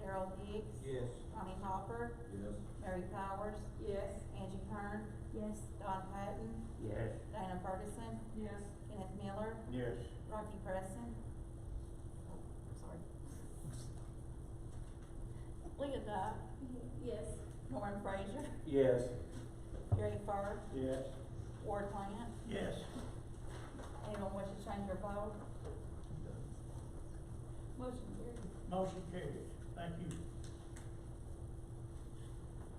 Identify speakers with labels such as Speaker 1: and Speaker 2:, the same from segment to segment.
Speaker 1: Daryl Hicks.
Speaker 2: Yes.
Speaker 1: Tommy Hopper.
Speaker 2: Yes.
Speaker 1: Mary Powers.
Speaker 3: Yes.
Speaker 1: Angie Kern.
Speaker 4: yes,
Speaker 1: Don Patton.
Speaker 2: Yes.
Speaker 1: Diana Ferguson.
Speaker 3: Yes.
Speaker 1: Kenneth Miller.
Speaker 2: Yes.
Speaker 1: Rocky Preston. Oh, I'm sorry. Leah Dyke.
Speaker 4: yes,
Speaker 1: Norman Frazier.
Speaker 2: Yes.
Speaker 1: Gary Fur.
Speaker 2: Yes.
Speaker 1: Ward Plan.
Speaker 2: Yes.
Speaker 1: Anyone wish to change their vote? Motion carried.
Speaker 5: Motion carries, thank you.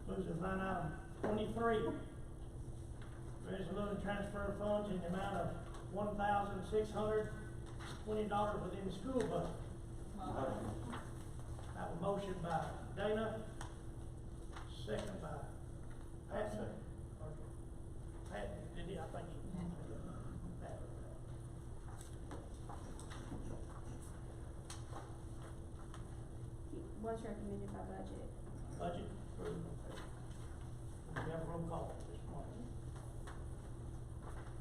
Speaker 5: Moves to line item twenty-three. Resolution to transfer funds in the amount of one thousand six hundred twenty dollars within the school budget. I have a motion by Dana, second by Patrick. Pat, did he, I think he. Pat.
Speaker 4: was recommended by budget.
Speaker 5: Budget approved. We have roll call this morning.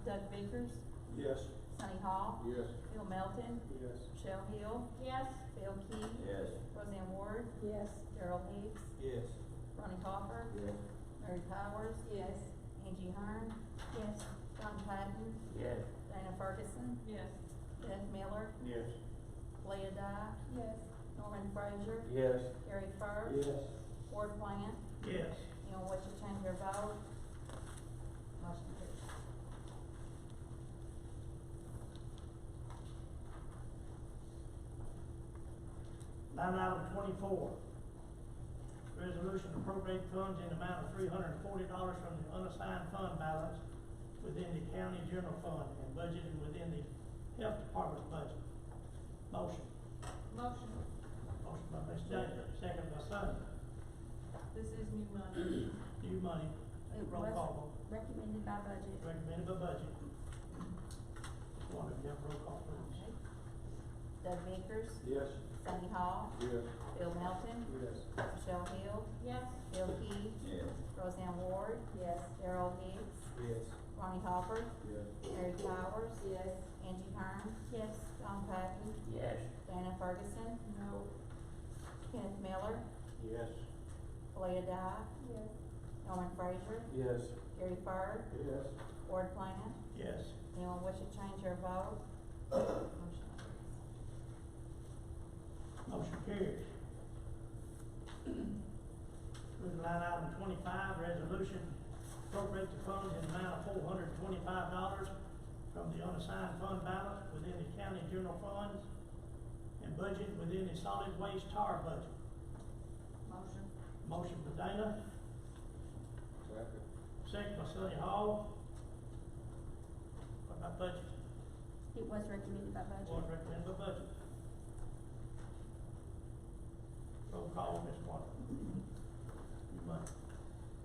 Speaker 1: Doug Bickers.
Speaker 2: Yes.
Speaker 1: Sunny Hall.
Speaker 2: Yes.
Speaker 1: Bill Melton.
Speaker 2: Yes.
Speaker 1: Michelle Hill.
Speaker 3: Yes.
Speaker 1: Bill Key.
Speaker 2: Yes.
Speaker 1: Roseanne Ward.
Speaker 4: Yes.
Speaker 1: Daryl Hicks.
Speaker 2: Yes.
Speaker 1: Ronnie Hopper.
Speaker 2: Yes.
Speaker 1: Mary Powers.
Speaker 3: Yes.
Speaker 1: Angie Hearn.
Speaker 4: Yes,
Speaker 1: Don Patton.
Speaker 2: Yes.
Speaker 1: Dana Ferguson.
Speaker 3: Yes.
Speaker 1: Kenneth Miller.
Speaker 2: Yes.
Speaker 1: Leah Dyke.
Speaker 4: yes,
Speaker 1: Norman Frazier.
Speaker 2: Yes.
Speaker 1: Gary Fur.
Speaker 2: Yes.
Speaker 1: Ward Plan.
Speaker 5: Yes.
Speaker 1: Anyone wish to change their vote? Motion carries.
Speaker 5: Line item twenty-four. Resolution to appropriate funds in amount of three hundred and forty dollars from the unassigned fund balance within the county general fund and budgeted within the health department budget. Motion.
Speaker 3: Motion.
Speaker 5: Motion by Ms. Davis, second by Sonny.
Speaker 3: This is new money.
Speaker 5: New money.
Speaker 4: It
Speaker 5: Roll
Speaker 4: was-
Speaker 5: call
Speaker 4: recommended by budget.
Speaker 5: vote. Recommended by budget. One of you have roll call, please.
Speaker 1: Okay. Doug Bickers.
Speaker 2: Yes.
Speaker 1: Sunny Hall.
Speaker 2: Yes.
Speaker 1: Bill Melton.
Speaker 2: Yes.
Speaker 1: Michelle Hill.
Speaker 3: Yes.
Speaker 1: Bill Key.
Speaker 2: Yes.
Speaker 1: Roseanne Ward.
Speaker 4: Yes.
Speaker 1: Daryl Hicks.
Speaker 2: Yes.
Speaker 1: Ronnie Hopper.
Speaker 2: Yes.
Speaker 1: Mary Powers.
Speaker 3: Yes.
Speaker 1: Angie Hearn.
Speaker 4: Yes,
Speaker 1: Don Patton.
Speaker 2: Yes.
Speaker 1: Dana Ferguson.
Speaker 3: No.
Speaker 1: Kenneth Miller.
Speaker 2: Yes.
Speaker 1: Leah Dyke.
Speaker 4: yes,
Speaker 1: Norman Frazier.
Speaker 2: Yes.
Speaker 1: Gary Fur.
Speaker 2: Yes.
Speaker 1: Ward Plan.
Speaker 5: Yes.
Speaker 1: Anyone wish to change their vote? Motion carries.
Speaker 5: Motion carries. Move to line item twenty-five, resolution appropriate the funds in the amount of four hundred and twenty-five dollars from the unassigned fund balance within the county general funds and budget within the solid waste tar budget.
Speaker 3: Motion.
Speaker 5: Motion by Dana,
Speaker 2: Second.
Speaker 5: second by Sonny Hall. What about budget?
Speaker 4: it was recommended by budget.
Speaker 5: Board recommend the budget. Roll call, Ms. Martin. You might.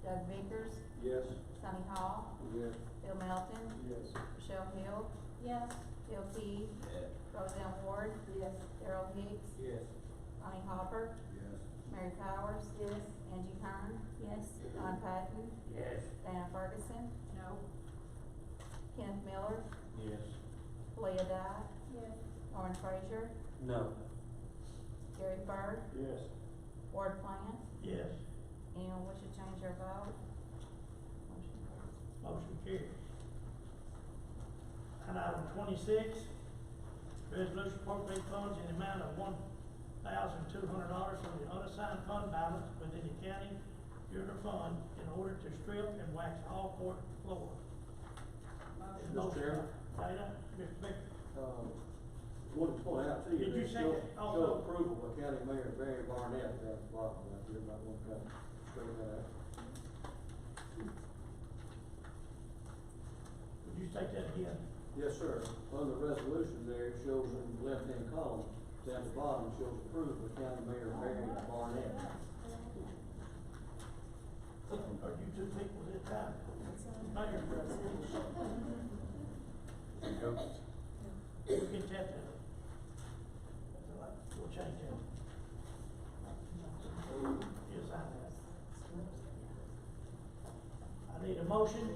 Speaker 1: Doug Bickers.
Speaker 2: Yes.
Speaker 1: Sunny Hall.
Speaker 2: Yes.
Speaker 1: Bill Melton.
Speaker 2: Yes.
Speaker 1: Michelle Hill.
Speaker 3: Yes.
Speaker 1: Bill Key.
Speaker 2: Yes.
Speaker 1: Roseanne Ward.
Speaker 3: Yes.
Speaker 1: Daryl Hicks.
Speaker 2: Yes.
Speaker 1: Ronnie Hopper.
Speaker 2: Yes.
Speaker 1: Mary Powers. Yes. Angie Hearn.
Speaker 4: Yes,
Speaker 1: Don Patton.
Speaker 2: Yes.
Speaker 1: Dana Ferguson.
Speaker 3: No.
Speaker 1: Kenneth Miller.
Speaker 2: Yes.
Speaker 1: Leah Dyke.
Speaker 4: yes,
Speaker 1: Norman Frazier.
Speaker 2: No.
Speaker 1: Gary Fur.
Speaker 2: Yes.
Speaker 1: Ward Plan.
Speaker 5: Yes,
Speaker 1: Anyone wish to change their vote? Motion carries.
Speaker 5: motion carries. Line item twenty-six, resolution appropriate funds in the amount of one thousand two hundred dollars from the unassigned fund balance within the county general fund in order to strip and wax all court floor.
Speaker 3: Motion.
Speaker 5: Motion by
Speaker 2: Chair.
Speaker 5: Dana, Mr. Baker,
Speaker 6: Um, wanted to point out to you.
Speaker 5: Did you
Speaker 6: that
Speaker 5: say
Speaker 6: show-
Speaker 5: that Oh, also?
Speaker 6: Show approval by County Mayor Barry Barnett, that's the bottom, if you might want to come straighten that out.
Speaker 5: would you take that again?
Speaker 6: Yes, sir, on the resolution there, it shows in the left-hand column, down the bottom, it shows approval by County Mayor Barry Barnett.
Speaker 5: Are you two people this time? Mayor, we can tap that. That's all right. We'll change that. Yes, I have. I need a motion